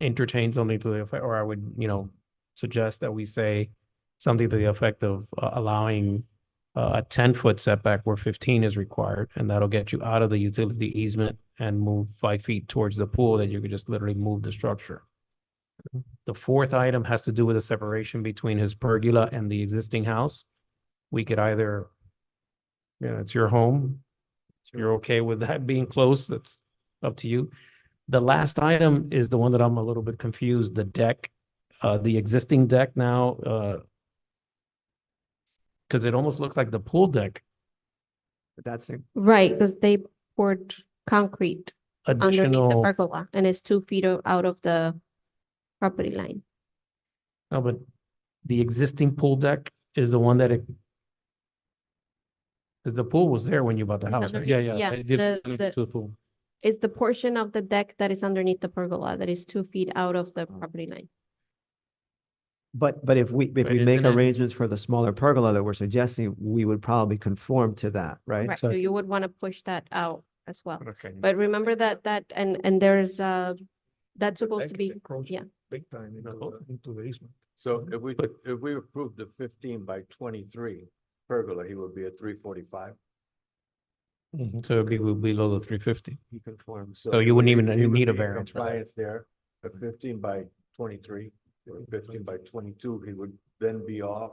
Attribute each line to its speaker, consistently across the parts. Speaker 1: entertain something to the effect, or I would, you know, suggest that we say something to the effect of uh, allowing uh, a ten-foot setback where fifteen is required, and that'll get you out of the utility easement and move five feet towards the pool, then you could just literally move the structure. The fourth item has to do with the separation between his pergola and the existing house. We could either, you know, it's your home. If You're okay with that being close, that's up to you. The last item is the one that I'm a little bit confused, the deck, uh, the existing deck now, uh, because it almost looks like the pool deck
Speaker 2: But that's, a-
Speaker 3: Right, because they poured concrete underneath the
Speaker 1: additional,
Speaker 3: pergola and it's two feet o- out of the property line.
Speaker 1: no, but the existing pool deck is the one that it because the pool was there when you bought the
Speaker 3: It's
Speaker 1: house, right?
Speaker 3: underneath-
Speaker 1: Yeah, yeah.
Speaker 3: yeah,
Speaker 1: it did
Speaker 3: the-
Speaker 1: connect
Speaker 3: the-
Speaker 1: To the pool.
Speaker 3: It's the portion of the deck that is underneath the pergola that is two feet out of
Speaker 1: Oh,
Speaker 3: the property line.
Speaker 2: but, but if we, if
Speaker 1: But
Speaker 2: we make
Speaker 1: isn't it-
Speaker 2: arrangements for the smaller pergola that we're suggesting, we would probably conform to that, right?
Speaker 3: Right,
Speaker 1: so-
Speaker 3: so you would want to push that out as well.
Speaker 1: Okay.
Speaker 3: But remember that, that, and, and there's, uh, that's supposed to be, yeah.
Speaker 4: Big time
Speaker 1: into
Speaker 4: into the easement.
Speaker 5: So if we, if we approved the fifteen by twenty-three pergola, he would be at three forty-five.
Speaker 1: Mm-hmm, So it'd be below the three fifty.
Speaker 5: He conforms.
Speaker 1: So you wouldn't even,
Speaker 5: he
Speaker 1: you
Speaker 5: would
Speaker 1: need a
Speaker 5: be in
Speaker 1: variance. for that.
Speaker 5: Compliance there, a fifteen by twenty-three, or fifteen by twenty-two, he would then be off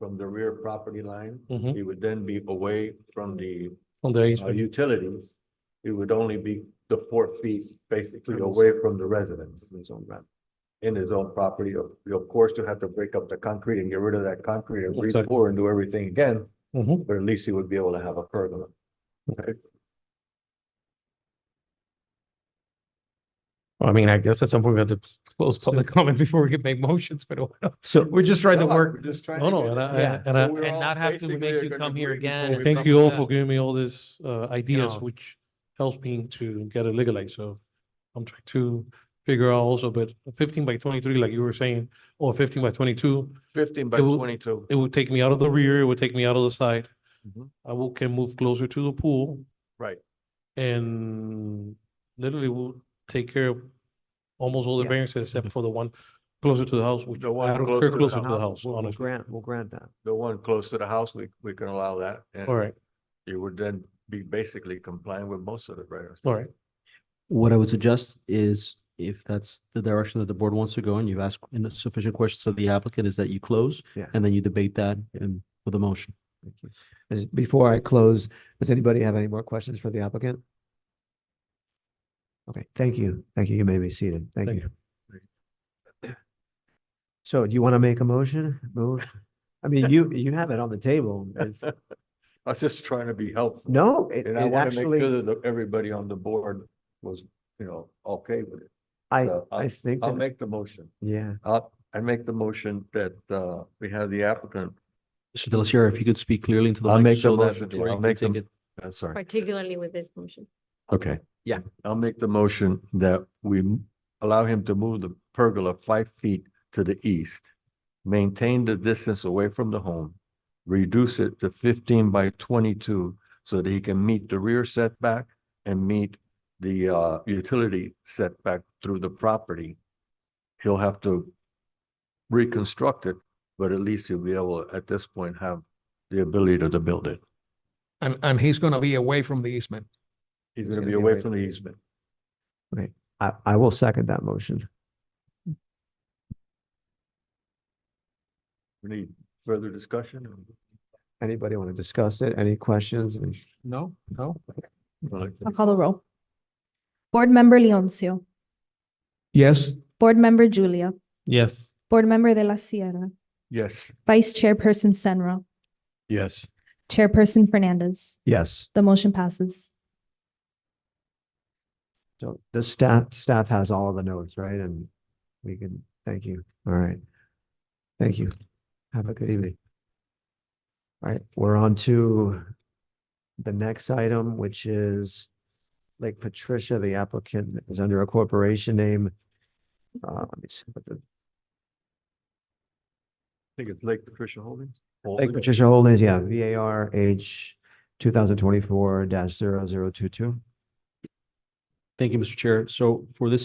Speaker 5: from the rear property line.
Speaker 1: Mhm.
Speaker 5: He would then be away from the
Speaker 1: On the
Speaker 5: uh,
Speaker 1: easement.
Speaker 5: utilities. It would only be the four feet basically
Speaker 2: From his-
Speaker 5: away from the residence in his own ground. In his own property, of, of course, to have to break up the concrete and get rid of that concrete and
Speaker 1: Exactly.
Speaker 5: re-pour and do everything again,
Speaker 1: Mhm.
Speaker 5: but at least he would be able to have a pergola.
Speaker 1: Well, I mean, I guess at some point we have to close public comment before we can make motions, but
Speaker 2: So
Speaker 1: we're just trying to
Speaker 5: No,
Speaker 1: work
Speaker 5: we're just trying
Speaker 1: No,
Speaker 5: to
Speaker 1: no,
Speaker 5: get
Speaker 1: and
Speaker 5: it.
Speaker 1: I,
Speaker 2: Yeah.
Speaker 1: and- and I,
Speaker 5: So we're
Speaker 1: and
Speaker 5: all
Speaker 1: not have to
Speaker 5: basically
Speaker 1: make you
Speaker 5: gonna
Speaker 1: come here
Speaker 5: agree before
Speaker 1: again.
Speaker 5: we
Speaker 4: Thank
Speaker 5: come
Speaker 4: you all
Speaker 1: Yeah.
Speaker 4: for giving me all these uh, ideas,
Speaker 1: Yeah.
Speaker 4: which helps me to get it legalized, so I'm trying to figure out also, but fifteen by twenty-three, like you were saying, or fifteen by twenty-two,
Speaker 5: Fifteen by
Speaker 4: It will-
Speaker 5: twenty-two.
Speaker 4: it would take me out of the rear, it would take me out of the side.
Speaker 5: Mhm.
Speaker 4: I will, can move closer to the pool.
Speaker 5: Right.
Speaker 4: And literally will take care of almost all the
Speaker 2: Yeah.
Speaker 4: variances except for the one closer to the house, which
Speaker 5: The one
Speaker 4: I don't
Speaker 5: close
Speaker 4: care
Speaker 5: to the
Speaker 4: closer to the
Speaker 2: we'll
Speaker 4: house,
Speaker 2: we'll
Speaker 4: honestly.
Speaker 2: grant, we'll grant that.
Speaker 5: The one close to the house, we, we can allow that. and
Speaker 4: All right,
Speaker 5: You would then be basically complying with most of the variance.
Speaker 4: all right.
Speaker 6: What I would suggest is if that's the direction that the board wants to go and you've asked en- sufficient questions of the applicant, is that you close
Speaker 2: Yeah.
Speaker 6: and then you debate that and with a motion.
Speaker 2: Thank you. Is- Before I close, does anybody have any more questions for the applicant? Okay, thank you. Thank you. You may be seated. Thank
Speaker 4: Thank
Speaker 2: you. So do you want to make a motion? Move? I mean, you, you have it on the table. It's,
Speaker 5: I was just trying to be helpful.
Speaker 2: no, it
Speaker 5: And I
Speaker 2: it
Speaker 5: want to make
Speaker 2: actually,
Speaker 5: sure that everybody on the board was, you know, okay with it.
Speaker 2: I,
Speaker 5: so I'll-
Speaker 2: I think,
Speaker 5: uh, I'll
Speaker 2: that-
Speaker 5: make the motion.
Speaker 2: yeah.
Speaker 5: I'll, I make the motion that, uh, we have the applicant,
Speaker 6: Mr. Delacierre, if you could speak clearly into the
Speaker 5: I'll
Speaker 6: mic
Speaker 5: make the
Speaker 6: so that
Speaker 5: motion,
Speaker 6: the
Speaker 5: yeah, I'll
Speaker 6: board can
Speaker 5: make the
Speaker 6: take
Speaker 5: m-
Speaker 6: it.
Speaker 5: I'm uh, sorry.
Speaker 3: Particularly with this motion.
Speaker 5: Okay.
Speaker 6: Yeah.
Speaker 5: I'll make the motion that we m- allow him to move the pergola five feet to the east, maintain the distance away from the home, reduce it to fifteen by twenty-two so that he can meet the rear setback and meet the, uh, utility setback through the property. He'll have to reconstruct it, but at least he'll be able, at this point, have the ability to build it.
Speaker 7: And, and he's gonna be away from the easement.
Speaker 5: He's gonna be away from the easement.
Speaker 2: I, I will second that motion.
Speaker 5: We need further discussion?
Speaker 2: Anybody want to discuss it? Any questions? Any-
Speaker 7: No, no.
Speaker 8: I'll call the roll. Board Member Leoncio,
Speaker 7: Yes.
Speaker 8: Board Member Julia,
Speaker 1: Yes.
Speaker 8: Board Member De La Sierra,
Speaker 5: Yes.
Speaker 8: Vice Chairperson Senra,
Speaker 7: Yes.
Speaker 8: Chairperson Fernandez.
Speaker 2: Yes.
Speaker 8: The motion passes.
Speaker 2: So the staff, staff has all of the notes, right? And we can, thank you. All right. Thank you. Have a good evening. All right, we're on to the next item, which is Lake Patricia, the applicant is under a corporation name. Uh, let me see what the
Speaker 5: I think it's Lake Patricia Holdings.
Speaker 2: Lake Patricia Holdings, yeah, V A R H two thousand twenty-four dash zero zero two two.
Speaker 6: Thank you, Mr. Chair. So for this